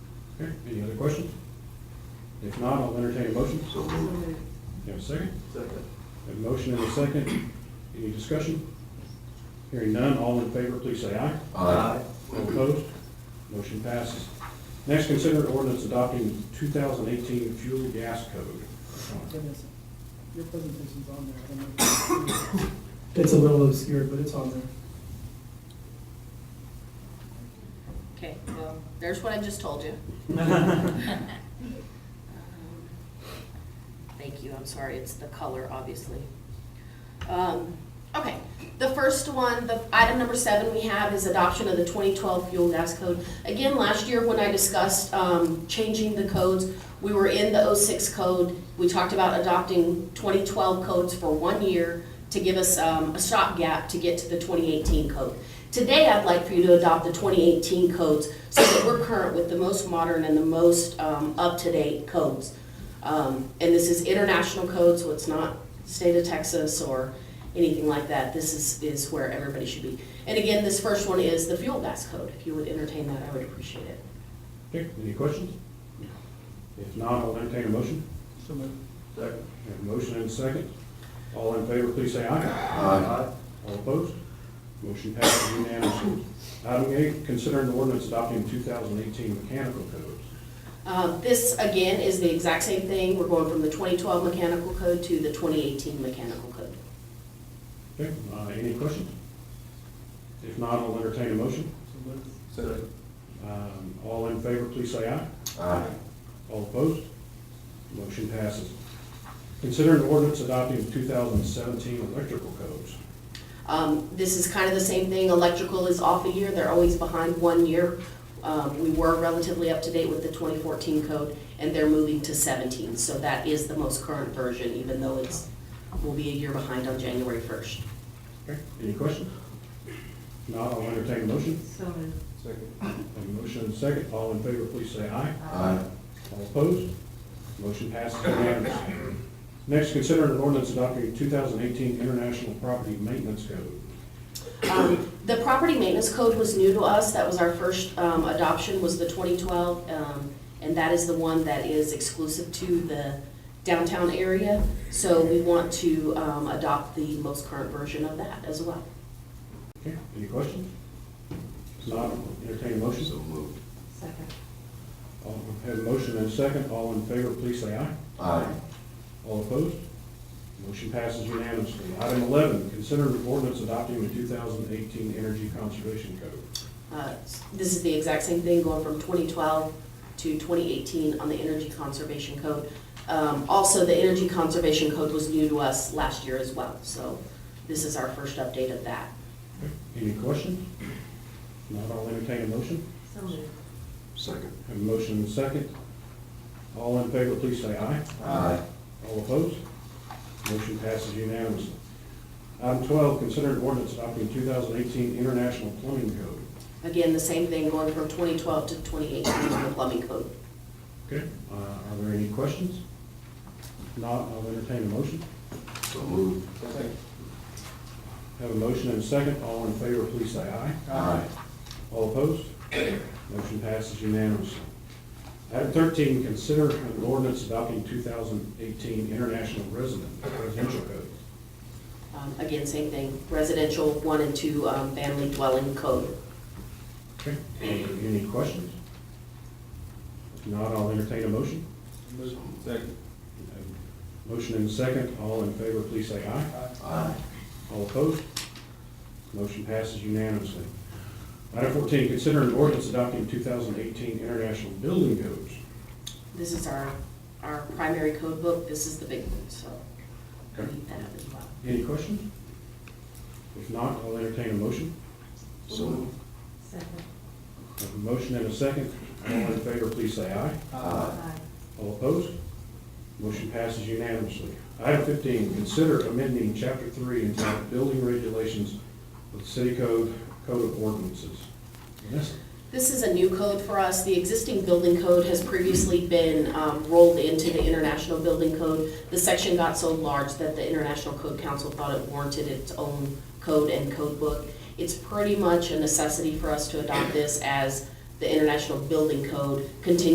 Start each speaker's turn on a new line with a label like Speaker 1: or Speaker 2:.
Speaker 1: Okay, any other questions? If not, I'll entertain a motion.
Speaker 2: So moved.
Speaker 1: You have a second?
Speaker 2: Second.
Speaker 1: A motion and a second. Any discussion? Hearing none, all in favor, please say aye.
Speaker 2: Aye.
Speaker 1: All opposed? Motion passes. Next, consider ordinance adopting 2018 fuel gas code.
Speaker 3: Goodness, your presentation's on there. I don't know.
Speaker 4: It's a little obscure, but it's on there.
Speaker 5: Okay, well, there's what I just told you. Thank you, I'm sorry, it's the color, obviously. Um, Okay, the first one, the item number seven we have is adoption of the 2012 fuel gas code. Again, last year when I discussed um, changing the codes, we were in the 06 code. We talked about adopting 2012 codes for one year to give us um, a stopgap to get to the 2018 code. Today, I'd like for you to adopt the 2018 codes so that we're current with the most modern and the most um, up-to-date codes. Um, And this is international code, so it's not state of Texas or anything like that. This is, is where everybody should be. And again, this first one is the fuel gas code. If you would entertain that, I would appreciate it.
Speaker 1: Okay, any questions? If not, I'll entertain a motion.
Speaker 3: So moved.
Speaker 2: Second.
Speaker 1: I have a motion and a second. All in favor, please say aye.
Speaker 2: Aye.
Speaker 1: All opposed? Motion passes unanimously. Item eight, considering the ordinance adopting 2018 mechanical codes.
Speaker 5: Uh, This, again, is the exact same thing. We're going from the 2012 mechanical code to the 2018 mechanical code.
Speaker 1: Okay, uh, any questions? If not, I'll entertain a motion.
Speaker 3: So moved.
Speaker 2: Second.
Speaker 1: Um, All in favor, please say aye.
Speaker 2: Aye.
Speaker 1: All opposed? Motion passes. Consider an ordinance adopting 2017 electrical codes.
Speaker 5: Um, This is kind of the same thing, electrical is off a year, they're always behind one year. Um, We were relatively up to date with the 2014 code, and they're moving to 17, so that is the most current version, even though it's, will be a year behind on January 1st.
Speaker 1: Okay, any questions? If not, I'll entertain a motion.
Speaker 3: So moved.
Speaker 2: Second.
Speaker 1: A motion and a second. All in favor, please say aye.
Speaker 2: Aye.
Speaker 1: All opposed? Motion passes unanimously. Next, consider an ordinance adopting 2018 international property maintenance code.
Speaker 5: Um, The property maintenance code was new to us, that was our first um, adoption, was the 2012, um, and that is the one that is exclusive to the downtown area. So we want to um, adopt the most current version of that as well.
Speaker 1: Okay, any questions? If not, entertain a motion.
Speaker 2: So moved.
Speaker 3: Second.
Speaker 1: All- Have a motion and a second. All in favor, please say aye.
Speaker 2: Aye.
Speaker 1: All opposed? Motion passes unanimously. Item 11, consider an ordinance adopting the 2018 Energy Conservation Code.
Speaker 5: Uh, This is the exact same thing, going from 2012 to 2018 on the Energy Conservation Code. Um, Also, the Energy Conservation Code was new to us last year as well, so this is our first update of that.
Speaker 1: Any questions? Not all entertain a motion.
Speaker 3: So moved.
Speaker 2: Second.
Speaker 1: Have a motion and a second. All in favor, please say aye.
Speaker 2: Aye.
Speaker 1: All opposed? Motion passes unanimously. Item 12, consider an ordinance adopting 2018 International Plumbing Code.
Speaker 5: Again, the same thing, going from 2012 to 2018 on the plumbing code.
Speaker 1: Okay, uh, are there any questions? If Not, I'll entertain a motion.
Speaker 2: So moved. Second.
Speaker 1: Have a motion and a second. All in favor, please say aye.
Speaker 2: Aye.
Speaker 1: All opposed? Motion passes unanimously. Item thirteen, consider an ordinance adopting two thousand eighteen International Resident Residential Code.
Speaker 5: Um, Again, same thing, residential one and two um, family dwelling code.
Speaker 1: Okay, any questions? If not, I'll entertain a motion.
Speaker 2: Second.
Speaker 1: Motion and a second. All in favor, please say aye.
Speaker 2: Aye.
Speaker 1: All opposed? Motion passes unanimously. Item fourteen, consider an ordinance adopting two thousand eighteen International Building Codes.
Speaker 5: This is our, our primary code book, this is the big one, so we need that as well.
Speaker 1: Any questions? If not, I'll entertain a motion.
Speaker 2: So moved.
Speaker 3: Second.
Speaker 1: I have A motion and a second. All in favor, please say aye.
Speaker 2: Aye.
Speaker 1: All opposed? Motion passes unanimously. Item fifteen, consider amending chapter three entitled Building Regulations of the City Code, Code of Ordinances. Vanessa?
Speaker 5: This is a new code for us. The existing building code has previously been um, rolled into the International Building Code. The section got so large that the International Code Council thought it warranted its own code and code book. It's pretty much a necessity for us to adopt this as the International Building Code continues